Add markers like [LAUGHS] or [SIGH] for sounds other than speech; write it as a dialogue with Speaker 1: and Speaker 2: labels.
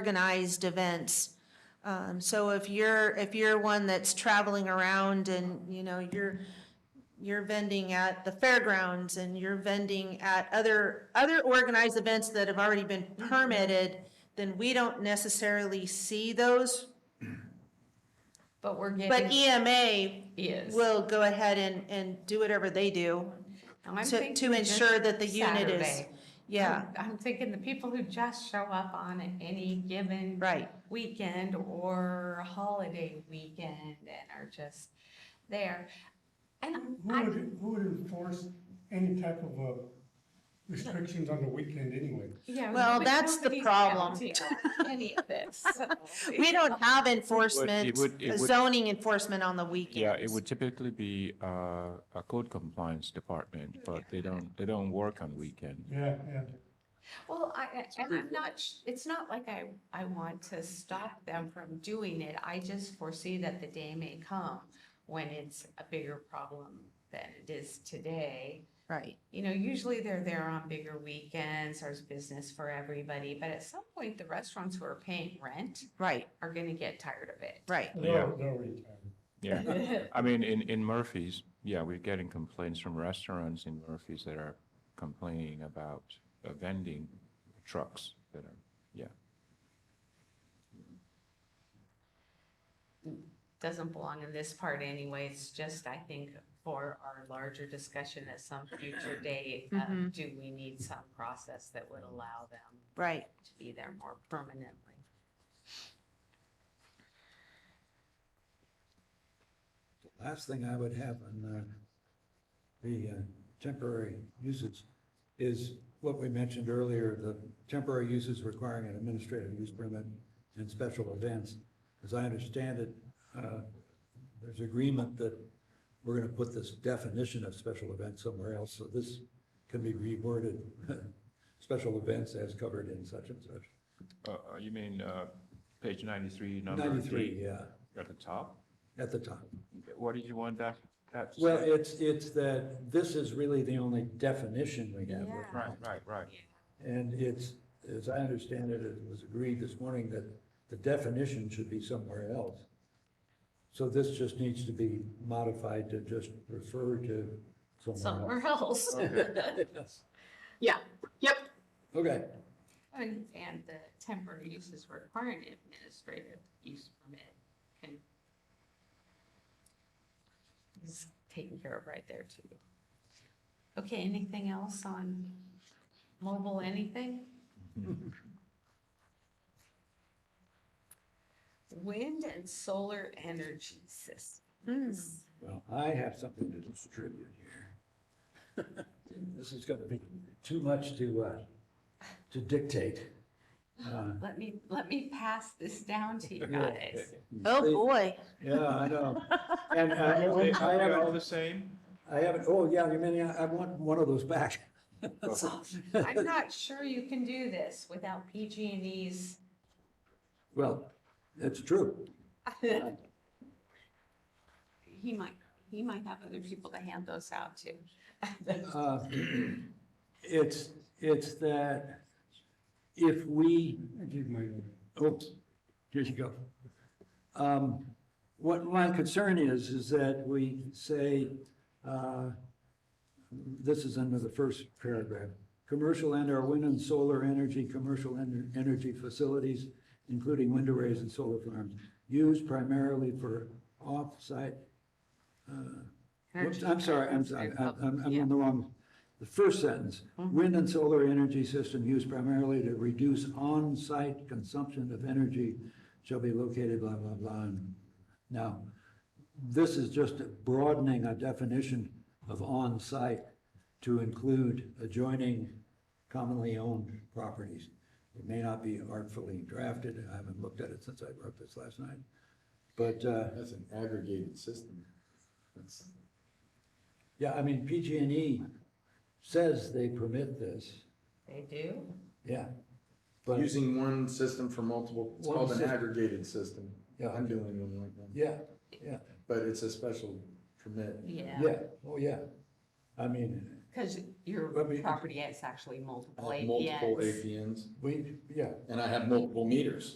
Speaker 1: organized events. Um, so if you're, if you're one that's traveling around and, you know, you're, you're vending at the fairgrounds and you're vending at other, other organized events that have already been permitted, then we don't necessarily see those,
Speaker 2: But we're
Speaker 1: but e-,
Speaker 2: getting
Speaker 1: EMA
Speaker 2: is.
Speaker 1: will go ahead and, and do whatever they do
Speaker 2: I'm
Speaker 1: to,
Speaker 2: thinking
Speaker 1: to
Speaker 2: this
Speaker 1: ensure that the unit is,
Speaker 2: Saturday.
Speaker 1: yeah,
Speaker 2: I'm- I'm thinking the people who just show up on any given
Speaker 1: right.
Speaker 2: weekend or holiday weekend and are just there. And
Speaker 3: Who
Speaker 2: I,
Speaker 3: would, who would enforce any type of uh, restrictions on the weekend anyway?
Speaker 2: yeah.
Speaker 1: Well,
Speaker 2: but
Speaker 1: that's the
Speaker 2: nobody's
Speaker 1: problem.
Speaker 2: counting on Any of this. so.
Speaker 1: [LAUGHS] We don't have enforcement, uh,
Speaker 4: would- it would-
Speaker 1: zoning enforcement on the weekends.
Speaker 4: Yeah, it would typically be uh, a code compliance department, but they don't, they don't work on weekends.
Speaker 3: Yeah, yeah.
Speaker 2: Well, I, I- and I'm not, sh- it's not like I, I want to stop them from doing it. I just foresee that the day may come when it's a bigger problem than it is today.
Speaker 1: Right,
Speaker 2: You know, usually they're there on bigger weekends, there's business for everybody, but at some point, the restaurants who are paying rent
Speaker 1: right,
Speaker 2: are gonna get tired of it.
Speaker 1: right.
Speaker 3: They're, they're retired.
Speaker 4: Yeah,
Speaker 2: [LAUGHS]
Speaker 4: [LAUGHS] I mean, in, in Murphy's, yeah, we're getting complaints from restaurants in Murphy's that are complaining about uh, vending trucks that are, yeah.
Speaker 2: Doesn't belong in this part anyway, it's just, I think, for our larger discussion at some future date, uh,
Speaker 1: Mhm.
Speaker 2: do we need some process that would allow them
Speaker 1: Right.
Speaker 2: to be there more permanently.
Speaker 5: The Last thing I would have on uh, the uh, temporary uses is what we mentioned earlier, the temporary uses requiring an administrative use permit and special events. As I understand it, uh, there's agreement that we're going to put this definition of special events somewhere else, so this can be reworded, [LAUGHS] special events as covered in such and such.
Speaker 4: Uh, uh, You mean uh, page 93, number
Speaker 5: 93,
Speaker 4: three,
Speaker 5: yeah,
Speaker 4: at the top?
Speaker 5: at the top.
Speaker 4: What did you want that, that to
Speaker 5: Well,
Speaker 4: say?
Speaker 5: it's, it's that this is really the only definition we have. right
Speaker 2: Yeah.
Speaker 4: Right, right, right.
Speaker 5: And it's, as I understand it, it was agreed this morning that the definition should be somewhere else. So this just needs to be modified to just refer to somewhere
Speaker 2: Somewhere else. [LAUGHS]
Speaker 5: else.
Speaker 2: Yeah, yep.
Speaker 5: Okay,
Speaker 2: And, and the temporary uses require an administrative use permit can is taken care of right there too. Okay, anything else on mobile anything? [LAUGHS] Wind and solar energy systems.
Speaker 5: well, I have something to distribute here. [LAUGHS] This is gonna be too much to, uh, to dictate. Uh,
Speaker 2: Let me, let me pass this down to you guys.
Speaker 1: Oh,
Speaker 5: they-
Speaker 1: boy.
Speaker 5: Yeah, I know. And uh,
Speaker 4: Are they-
Speaker 5: [LAUGHS] I
Speaker 4: are they
Speaker 5: haven't
Speaker 4: all the same?
Speaker 5: I haven't, oh, yeah, you mean, I I want one of those back. [LAUGHS]
Speaker 2: I'm not sure you can do this without PG&E's.
Speaker 5: Well, that's true.
Speaker 2: He might, he might have other people to hand those out to.
Speaker 5: Uh, It's, it's that if we,
Speaker 3: I give my.
Speaker 5: oh, here you go. Um, What my concern is, is that we say, uh, this is under the first paragraph. Commercial and or wind and solar energy, commercial en- energy facilities, including wind arrays and solar farms, used primarily for off-site. uh, whoops, I'm sorry, I'm sorry, I'm, I'm- I'm on the wrong, the first sentence. Wind and solar energy system used primarily to reduce on-site consumption of energy shall be located blah, blah, blah. and- Now, this is just broadening a definition of on-site to include adjoining commonly owned properties. It may not be artfully drafted, I haven't looked at it since I wrote this last night, but, uh,
Speaker 6: That's an aggregated system. That's,
Speaker 5: yeah, I mean, PG&E E says they permit this,
Speaker 2: They do?
Speaker 5: yeah. But,
Speaker 6: using one system for multiple, it's
Speaker 5: One
Speaker 6: called an
Speaker 5: system.
Speaker 6: aggregated system.
Speaker 5: Yeah.
Speaker 6: I'm doing one right now,
Speaker 5: yeah, yeah,
Speaker 6: but it's a special permit.
Speaker 2: Yeah.
Speaker 5: yeah, oh, yeah. I mean,
Speaker 2: Because your
Speaker 5: I mean-
Speaker 2: property is actually Uh, multiple
Speaker 6: I have multiple
Speaker 2: APNs.
Speaker 6: APNs
Speaker 5: We, yeah,
Speaker 6: and I have multiple meters.